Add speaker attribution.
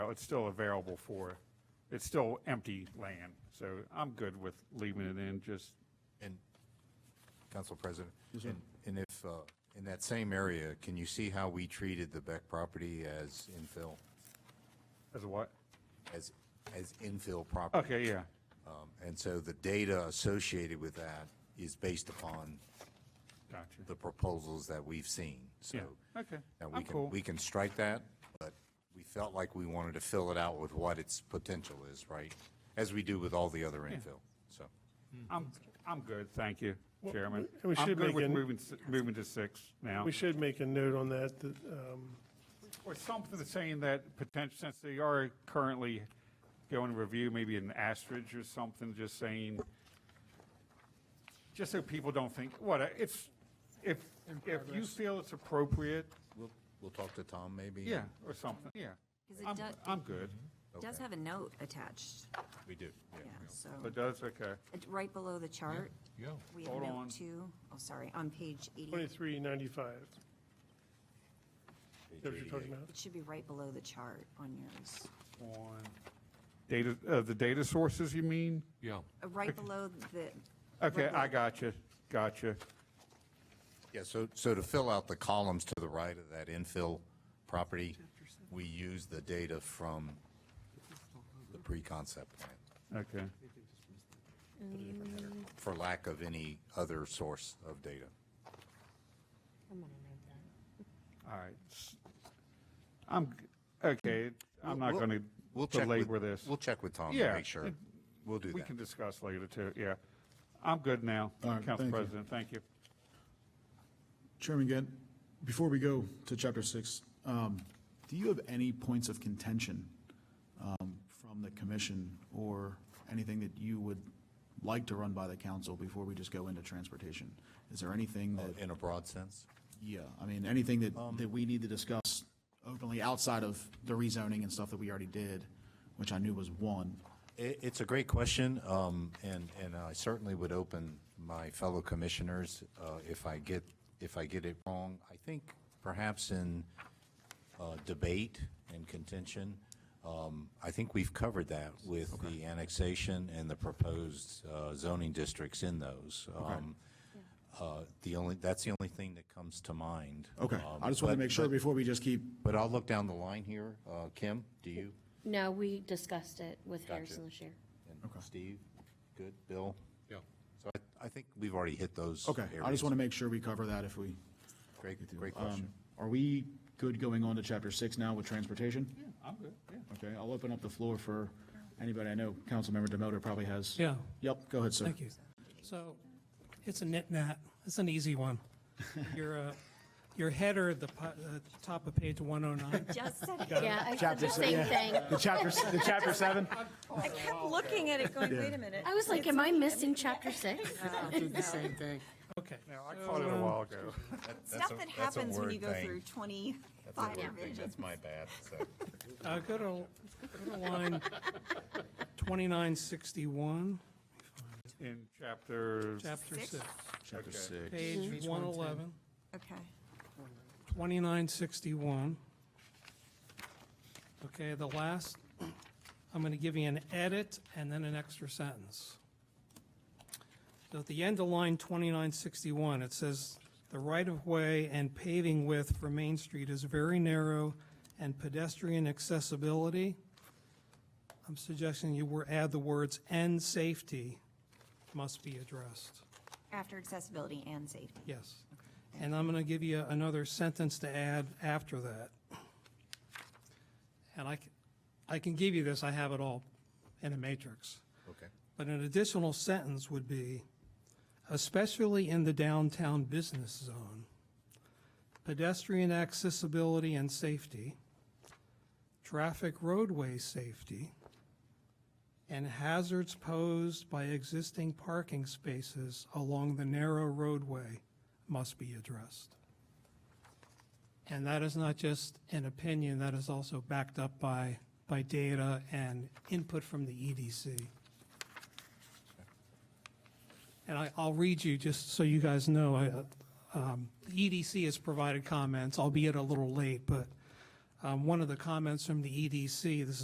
Speaker 1: it's still available for, it's still empty land. So I'm good with leaving it in, just,
Speaker 2: And, Council President, and and if, uh, in that same area, can you see how we treated the Beck property as infill,
Speaker 1: as a what?
Speaker 2: as, as infill property?
Speaker 1: Okay, yeah,
Speaker 2: Um, And so the data associated with that is based upon
Speaker 1: gotcha.
Speaker 2: the proposals that we've seen, so.
Speaker 1: Yeah, okay.
Speaker 2: Now, we
Speaker 1: I'm
Speaker 2: can,
Speaker 1: cool.
Speaker 2: we can strike that, but we felt like we wanted to fill it out with what its potential is, right? As we do with all the other infill, so.
Speaker 1: I'm, I'm good, thank you, Chairman.
Speaker 3: we- we
Speaker 1: I'm
Speaker 3: should
Speaker 1: good
Speaker 3: make
Speaker 1: with
Speaker 3: an-
Speaker 1: moving, s- moving to six now.
Speaker 3: We should make a note on that, that, um,
Speaker 1: Or something saying that potential, since they are currently going to review, maybe an asterisk or something, just saying, just so people don't think, what, it's, if, if you feel it's appropriate,
Speaker 2: We'll, we'll talk to Tom, maybe?
Speaker 1: yeah, or something, yeah.
Speaker 4: 'Cause it
Speaker 1: I'm,
Speaker 4: does-
Speaker 1: I'm good.
Speaker 2: Mm-hmm.
Speaker 4: It does have a note attached,
Speaker 2: We do,
Speaker 4: yeah, so,
Speaker 1: It does, okay.
Speaker 4: it's right below the chart.
Speaker 2: Yeah.
Speaker 4: We have
Speaker 1: Hold on.
Speaker 4: note two, oh, sorry, on page eighty, it
Speaker 3: 2395. Is that what you're talking about?
Speaker 4: should be right below the chart on yours.
Speaker 1: On data, uh, the data sources, you mean?
Speaker 5: Yeah,
Speaker 4: Uh, Right below the.
Speaker 1: Okay,
Speaker 4: right
Speaker 1: I
Speaker 4: below-
Speaker 1: gotcha, gotcha.
Speaker 2: Yeah, so, so to fill out the columns to the right of that infill property, we use the data from the pre-concept plan,
Speaker 1: Okay,
Speaker 2: for lack of any other source of data.
Speaker 1: all right. S- I'm, g- okay, I'm not
Speaker 2: We'll-
Speaker 1: going to
Speaker 2: we'll check with-
Speaker 1: belabor this.
Speaker 2: We'll check with Tom
Speaker 1: Yeah,
Speaker 2: to make sure.
Speaker 1: it-
Speaker 2: We'll do
Speaker 1: We
Speaker 2: that.
Speaker 1: can discuss later, too, yeah. I'm good now,
Speaker 6: All right,
Speaker 1: Council
Speaker 6: thank you.
Speaker 1: President, thank you.
Speaker 6: Chairman Gant, before we go to chapter six, um, do you have any points of contention um, from the commission or anything that you would like to run by the council before we just go into transportation? Is there anything that,
Speaker 2: In a broad sense?
Speaker 6: yeah, I mean, anything that, that we need to discuss openly outside of the rezoning and stuff that we already did, which I knew was one?
Speaker 2: It, it's a great question, um, and, and I certainly would open my fellow commissioners, uh, if I get, if I get it wrong. I think perhaps in, uh, debate and contention, um, I think we've covered that with the annexation and the proposed, uh, zoning districts in those. Um, uh, the only, that's the only thing that comes to mind.
Speaker 6: Okay,
Speaker 2: Um,
Speaker 6: I just want to
Speaker 2: but-
Speaker 6: make sure
Speaker 2: but-
Speaker 6: before we just keep,
Speaker 2: But I'll look down the line here. Uh, Kim, do you?
Speaker 7: No, we discussed it with
Speaker 2: Gotcha.
Speaker 7: Harrison this year.
Speaker 2: And Steve? Good. Bill?
Speaker 5: yeah.
Speaker 2: So I, I think we've already hit those.
Speaker 6: okay, I
Speaker 2: areas.
Speaker 6: just want to make sure we cover that if we.
Speaker 2: Great,
Speaker 6: do.
Speaker 2: great
Speaker 6: Um,
Speaker 2: question.
Speaker 6: Are we good going on to chapter six now with transportation?
Speaker 1: I'm good, yeah.
Speaker 6: Okay, I'll open up the floor for anybody. I know Councilmember Demoter probably has.
Speaker 8: Yeah.
Speaker 6: Yep, go ahead, sir.
Speaker 8: Thank you. So it's a nit-nat. It's an easy one. Your, uh, your header at the po- uh, top of page 109.
Speaker 4: Just said, it.
Speaker 7: Yeah, I said the same thing.
Speaker 6: The chapter, the chapter seven?
Speaker 4: I kept looking at it going, wait a minute.
Speaker 7: I was like, am I missing chapter six?
Speaker 8: Okay.
Speaker 1: No, I caught it a
Speaker 4: um,
Speaker 1: while ago.
Speaker 4: Stuff that happens when you go through twenty-five revisions.
Speaker 2: That's my bad,
Speaker 8: Uh, Go to, go to line 2961,
Speaker 1: In chapter,
Speaker 8: chapter
Speaker 4: Six? Mm-hmm.
Speaker 8: 6,
Speaker 6: Chapter six.
Speaker 8: page 111,
Speaker 4: Okay,
Speaker 8: 2961. Okay, the last, I'm going to give you an edit and then an extra sentence. So at the end of line 2961, it says, "The right-of-way and paving width for Main Street is very narrow and pedestrian accessibility." I'm suggesting you were, add the words, "and safety must be addressed."
Speaker 4: after accessibility and safety.
Speaker 8: Yes. And I'm going to give you another sentence to add after that. And I, c- I can give you this, I have it all in a matrix.
Speaker 2: Okay.
Speaker 8: But an additional sentence would be, especially in the downtown business zone, pedestrian accessibility and safety, traffic roadway safety, and hazards posed by existing parking spaces along the narrow roadway must be addressed. And that is not just an opinion, that is also backed up by, by data and input from the E EDC. And I, I'll read you, just so you guys know, I, um, the EDC has provided comments, albeit a little late, but um, one of the comments from the EDC, this is